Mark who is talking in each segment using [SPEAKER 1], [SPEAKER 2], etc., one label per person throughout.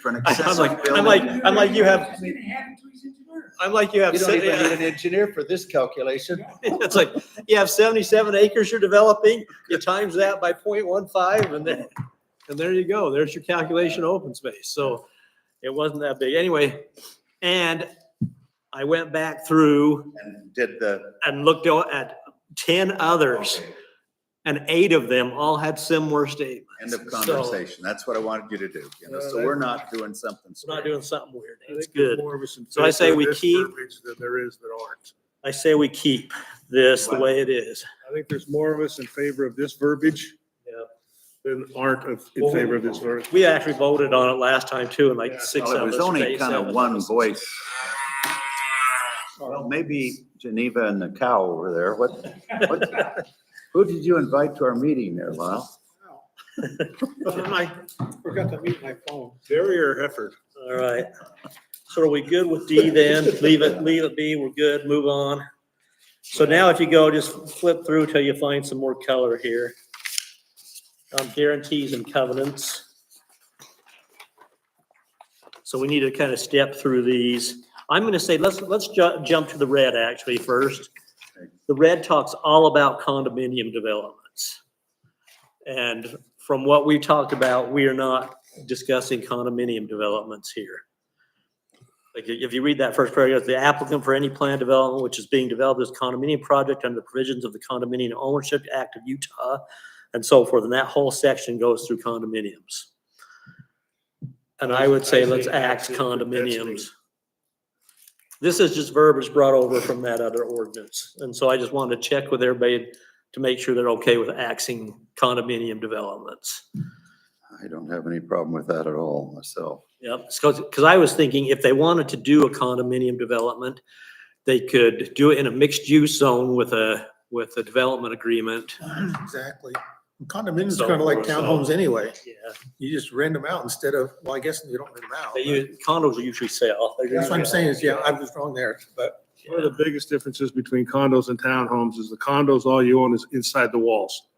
[SPEAKER 1] for an
[SPEAKER 2] I'm
[SPEAKER 1] accessory
[SPEAKER 2] like, I'm like,
[SPEAKER 1] building.
[SPEAKER 2] I'm like you have,
[SPEAKER 3] Just need a half to his engineer.
[SPEAKER 2] I'm like you have.
[SPEAKER 4] You don't
[SPEAKER 2] se-
[SPEAKER 4] even need an engineer for this calculation.
[SPEAKER 2] It's like, you have seventy-seven acres you're developing, you times that by 0.15, and then, and there you go, there's your calculation of open space, so it wasn't that big, anyway. And I went back through
[SPEAKER 5] And did the,
[SPEAKER 2] and looked o- at ten others,
[SPEAKER 5] okay,
[SPEAKER 2] and eight of them all had similar statements.
[SPEAKER 5] end of
[SPEAKER 2] So-
[SPEAKER 5] conversation. That's what I wanted you to do, you know, so we're not doing something.
[SPEAKER 2] We're Not
[SPEAKER 5] stupid.
[SPEAKER 2] doing something weird,
[SPEAKER 6] I
[SPEAKER 2] it's
[SPEAKER 6] think there's
[SPEAKER 2] good.
[SPEAKER 6] more of us in
[SPEAKER 2] So I say
[SPEAKER 6] favor of
[SPEAKER 2] we
[SPEAKER 6] this
[SPEAKER 2] keep-
[SPEAKER 6] verbiage Than there is that aren't.
[SPEAKER 2] I say we keep this the way it is.
[SPEAKER 6] I think there's more of us in favor of this verbiage.
[SPEAKER 2] Yeah.
[SPEAKER 6] Than aren't of- in
[SPEAKER 2] Well,
[SPEAKER 6] favor of this verbiage.
[SPEAKER 2] We actually voted on it last time too, and like six
[SPEAKER 5] Well,
[SPEAKER 2] of
[SPEAKER 5] it
[SPEAKER 2] us.
[SPEAKER 5] was
[SPEAKER 2] or
[SPEAKER 5] only
[SPEAKER 2] eight,
[SPEAKER 5] kind
[SPEAKER 2] seven
[SPEAKER 5] of
[SPEAKER 2] of
[SPEAKER 5] one
[SPEAKER 2] us.
[SPEAKER 5] voice. Well, maybe Geneva and the cow over there. What, what, who did you invite to our meeting there, Lyle?
[SPEAKER 2] My-
[SPEAKER 4] Forgot to mute my phone.
[SPEAKER 6] Barrier effort.
[SPEAKER 2] All right. So are we good with D then? Leave it, leave it be. We're good. Move on. So now if you go, just flip through till you find some more color here. Um, guarantees and covenants. So we need to kind of step through these. I'm gonna say, let's, let's ju- jump to the red actually first. The red talks all about condominium developments. And from what we talked about, we are not discussing condominium developments here. Like, if you read that first paragraph, the applicant for any planned development which is being developed as condominium project under the provisions of the Condominium Ownership Act of Utah and so forth, and that whole section goes through condominiums. And I would say let's axe condominiums. This is just verbiage brought over from that other ordinance, and so I just wanted to check with everybody to make sure they're okay with axing condominium developments.
[SPEAKER 5] I don't have any problem with that at all myself.
[SPEAKER 2] Yep, because, I was thinking if they wanted to do a condominium development, they could do it in a mixed use zone with a, with a development agreement.
[SPEAKER 3] Exactly. Condominiums
[SPEAKER 2] So-
[SPEAKER 3] are kind of like townhomes anyway.
[SPEAKER 2] Yeah.
[SPEAKER 3] You just rent them out instead of, well, I guess you don't rent them out.
[SPEAKER 2] They use, condos will usually sell. They're
[SPEAKER 3] That's what I'm
[SPEAKER 2] usually-
[SPEAKER 3] saying is, yeah, I was wrong there, but
[SPEAKER 6] One of the biggest differences between condos and townhomes is the condos, all you own is inside the walls.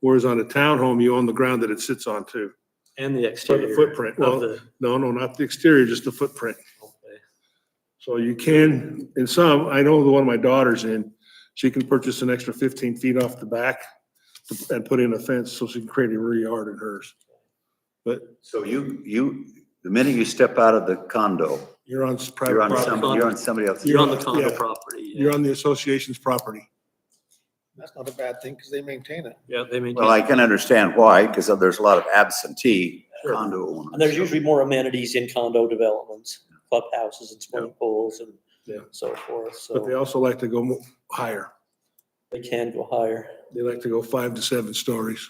[SPEAKER 6] Whereas on a townhome, you own the ground that it sits on too.
[SPEAKER 2] And the
[SPEAKER 6] Or
[SPEAKER 2] exterior.
[SPEAKER 6] the
[SPEAKER 2] Of
[SPEAKER 6] footprint. Well,
[SPEAKER 2] the,
[SPEAKER 6] no, no, not the exterior, just the footprint. So you can, in some, I know the one my daughter's in, she can purchase an extra fifteen feet off the back and put in a fence so she can create a rear yard in hers. But
[SPEAKER 5] So you, you, the minute you step out of the condo,
[SPEAKER 6] you're on
[SPEAKER 5] you're
[SPEAKER 6] private
[SPEAKER 5] on
[SPEAKER 6] property.
[SPEAKER 5] somebody, you're on somebody else's.
[SPEAKER 2] you're on the condo
[SPEAKER 6] Yeah.
[SPEAKER 2] property. yeah.
[SPEAKER 6] You're on the association's property.
[SPEAKER 3] that's not a bad thing because they maintain it.
[SPEAKER 2] Yeah, they
[SPEAKER 5] Well,
[SPEAKER 2] maintain,
[SPEAKER 5] I can understand why, because there's a lot of absentee
[SPEAKER 2] Sure.
[SPEAKER 5] condo owners.
[SPEAKER 2] and there's usually more amenities in condo developments, clubhouses and swimming pools and
[SPEAKER 6] Yeah.
[SPEAKER 2] so forth,
[SPEAKER 6] But they
[SPEAKER 2] so
[SPEAKER 6] also like to go mo- higher.
[SPEAKER 2] they can go higher.
[SPEAKER 6] They like to go five to seven stories.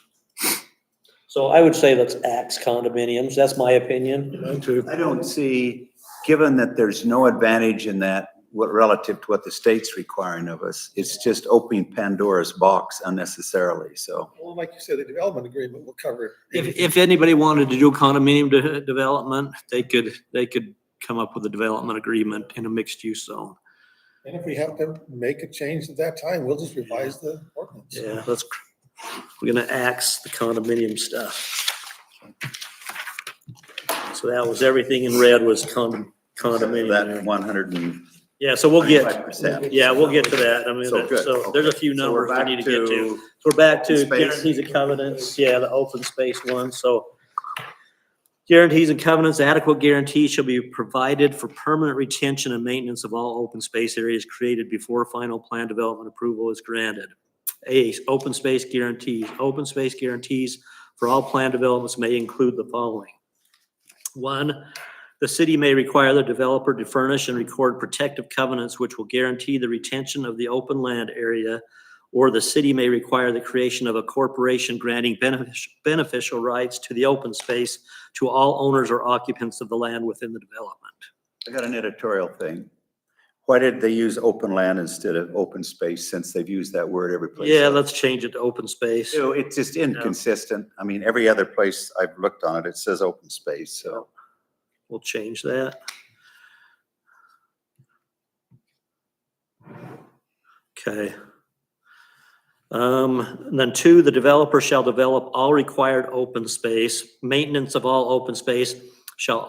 [SPEAKER 2] So I would say let's axe condominiums. That's my opinion.
[SPEAKER 6] Mine too.
[SPEAKER 5] I don't see, given that there's no advantage in that, what relative to what the state's requiring of us, it's just opening Pandora's box unnecessarily, so.
[SPEAKER 3] Well, like you said, the development agreement will cover it.
[SPEAKER 2] If, if anybody wanted to do condominium de- development, they could, they could come up with a development agreement in a mixed use zone.
[SPEAKER 3] And if we have to make a change at that time, we'll just revise the ordinance.
[SPEAKER 2] Yeah, let's, cr- we're gonna axe the condominium stuff. So that was, everything in red was condom,
[SPEAKER 5] That
[SPEAKER 2] condominium.
[SPEAKER 5] one hundred and
[SPEAKER 2] Yeah, so we'll
[SPEAKER 5] twenty-five
[SPEAKER 2] get,
[SPEAKER 5] percent.
[SPEAKER 2] yeah, we'll get to that. I mean,
[SPEAKER 5] So good.
[SPEAKER 2] so there's a
[SPEAKER 5] Okay.
[SPEAKER 2] few
[SPEAKER 5] So we're
[SPEAKER 2] numbers we
[SPEAKER 5] back
[SPEAKER 2] need to get to. So We're back to
[SPEAKER 5] Open space.
[SPEAKER 2] guarantees and covenants, yeah, the open space one, so. Guarantees and covenants, adequate guarantees shall be provided for permanent retention and maintenance of all open space areas created before final plan development approval is granted. A, open space guarantees, open space guarantees for all plan developments may include the following. One, the city may require the developer to furnish and record protective covenants which will guarantee the retention of the open land area or the city may require the creation of a corporation granting benefic- beneficial rights to the open space to all owners or occupants of the land within the development.
[SPEAKER 5] I got an editorial thing. Why did they use open land instead of open space, since they've used that word every place?
[SPEAKER 2] Yeah,
[SPEAKER 5] else?
[SPEAKER 2] let's change it to open space.
[SPEAKER 5] So it's just inconsistent. I mean, every other place I've looked on it, it says open space, so.
[SPEAKER 2] We'll change that. Okay. Um, and then two, the developer shall develop all required open space. Maintenance of all open space shall